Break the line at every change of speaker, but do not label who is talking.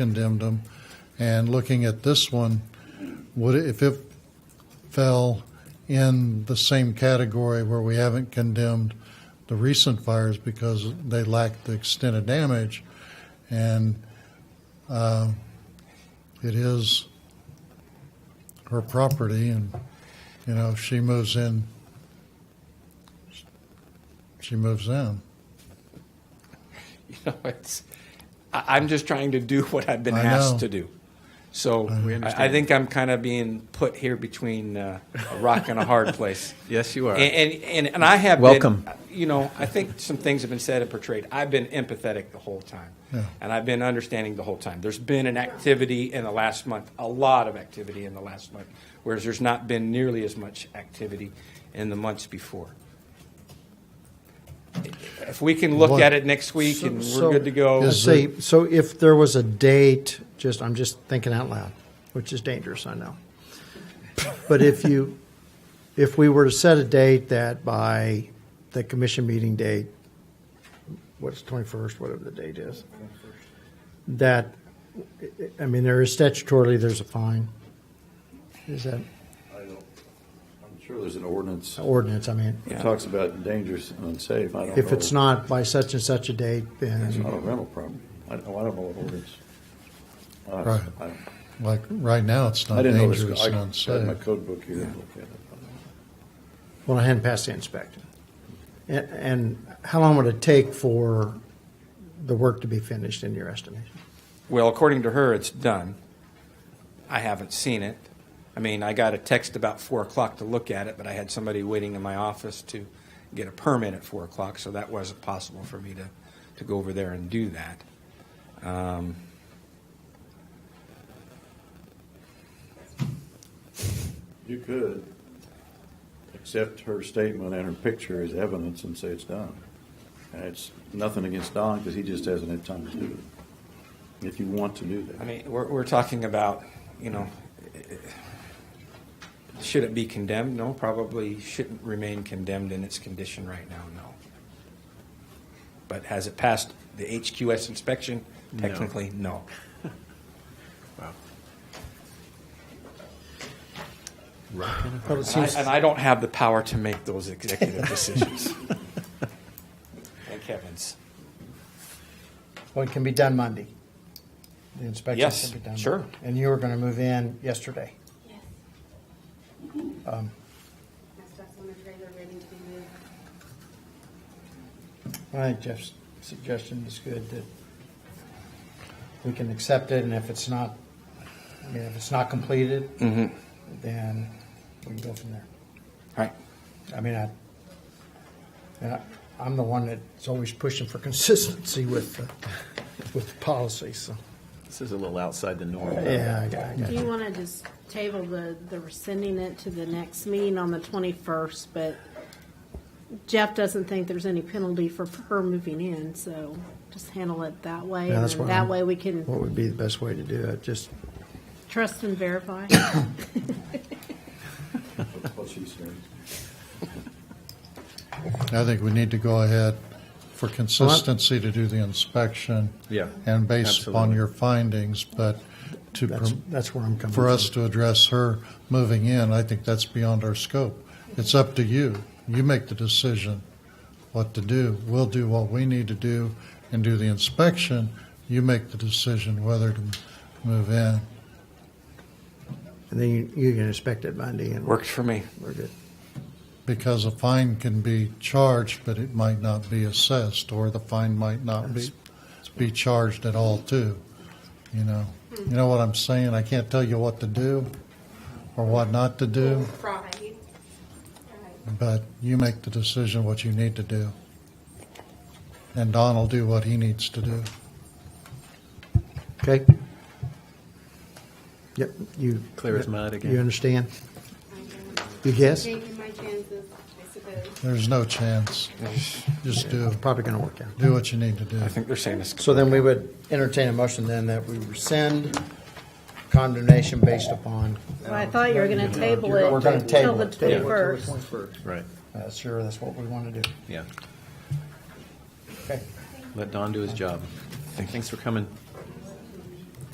condemned them. And looking at this one, would, it- if it fell in the same category where we haven't condemned the recent fires because they lack the extent of damage, and uh, it is her property, and, you know, if she moves in, she moves in.
You know, it's, I, I'm just trying to do what I've been
I
asked
know.
to do. So
We
I, I
understand.
think I'm kind of being put here between uh, a rock and a hard place.
Yes, you are.
And, and, and, and I have been-
Welcome.
you know, I think some things have been said and portrayed. I've been empathetic the whole time.
Yeah.
And I've been understanding the whole time. There's been an activity in the last month, a lot of activity in the last month, whereas there's not been nearly as much activity in the months before. If we can look
What-
at it next week and we're good to go.
Is
Let's see. So if there was a date, just I'm just thinking out loud, which is dangerous, I know. But if you, if we were to set a date that by the commission meeting date, what's 21st, whatever the date is, that, I mean, there is statutorily, there's a fine. Is that
I'm sure there's an ordinance
ordinance? I mean,
that talks about dangerous and unsafe. I don't
Oh, if it's
know.
not by such and such a date,
It's
then
not a rental property. I don't, I don't know what ordinance. I don't-
Right.
I don't-
Like, right now, it's
I
not
didn't know this.
dangerous and
I had my
unsafe.
code book here. and looked at it.
Well, I hadn't passed the inspection. And, and how long would it take for the work to be finished in your estimation?
Well, according to her, it's done. I haven't seen it. I mean, I got a text about four o'clock to look at it, but I had somebody waiting in my office to get a permit at four o'clock, so that wasn't possible for me to, to go over there and do that. Um,
You could accept her statement and her picture as evidence and say it's done. And it's nothing against Don because he just hasn't had time to do it. If you want to do
I
that.
mean, we're, we're talking about, you know, should it be condemned? No, probably shouldn't remain condemned in its condition right now, no. But has it passed the HQS inspection? Technically, no.
Well, it
And
seems,
I, and I don't have the power to make those executive decisions. Thank heavens.
well, it can be done Monday. The inspection
Yes,
can be done.
sure.
Monday. And you were going to move in yesterday.
Yes,
Um,
my stuff's on the trailer ready to be moved.
I think Jeff's suggestion is good that we can accept it, and if it's not, I mean, if it's not completed,
Mm-hmm.
then we can go from there.
All right.
I mean, I, and I, I'm the one that's always pushing for consistency with, the- with the policy, so.
This is a little outside the norm.
Yeah, I got, I got
Do you want to just table the, the rescinding it to the next meeting on the 21st, but Jeff doesn't think there's any penalty for her moving in, so just handle it that way.
Yeah,
and
that's
then
what
That
I'm-
way we can
What would be the best way to do it? Just,
trust and verify.
That's what she said.
I think we need to go ahead for consistency to do the inspection.
Yeah,
And based upon
absolutely.
your findings, but to,
that's,
prom-
that's where I'm coming from.
for us to address her moving in, I think that's beyond our scope. It's up to you. You make the decision what to do. We'll do what we need to do and do the inspection. You make the decision whether to move in.
And then you, you can inspect it Monday and.
Works for me.
We're good.
Because a fine can be charged, but it might not be assessed, or the fine might not be, be charged at all too, you know? You know what I'm saying? I can't tell you what to do or what not to do,
Right.
but you make the decision what you need to do. And Don will do what he needs to do.
Okay? Yep, you.
Clear as mud again.
You understand? You guess?
Taking my chances, I suppose.
There's no chance. Just do,
Probably going to work out.
do what you need to do.
I think they're saying this.
So then we would entertain a motion then that we rescind condemnation based upon.
Well, I thought you were going to table it
We're gonna
until
table
the
it. Table it
21st.
Right,
Uh, Sure, that's what we want to do.
yeah.
Okay.
Let Don do his job. Thanks for coming.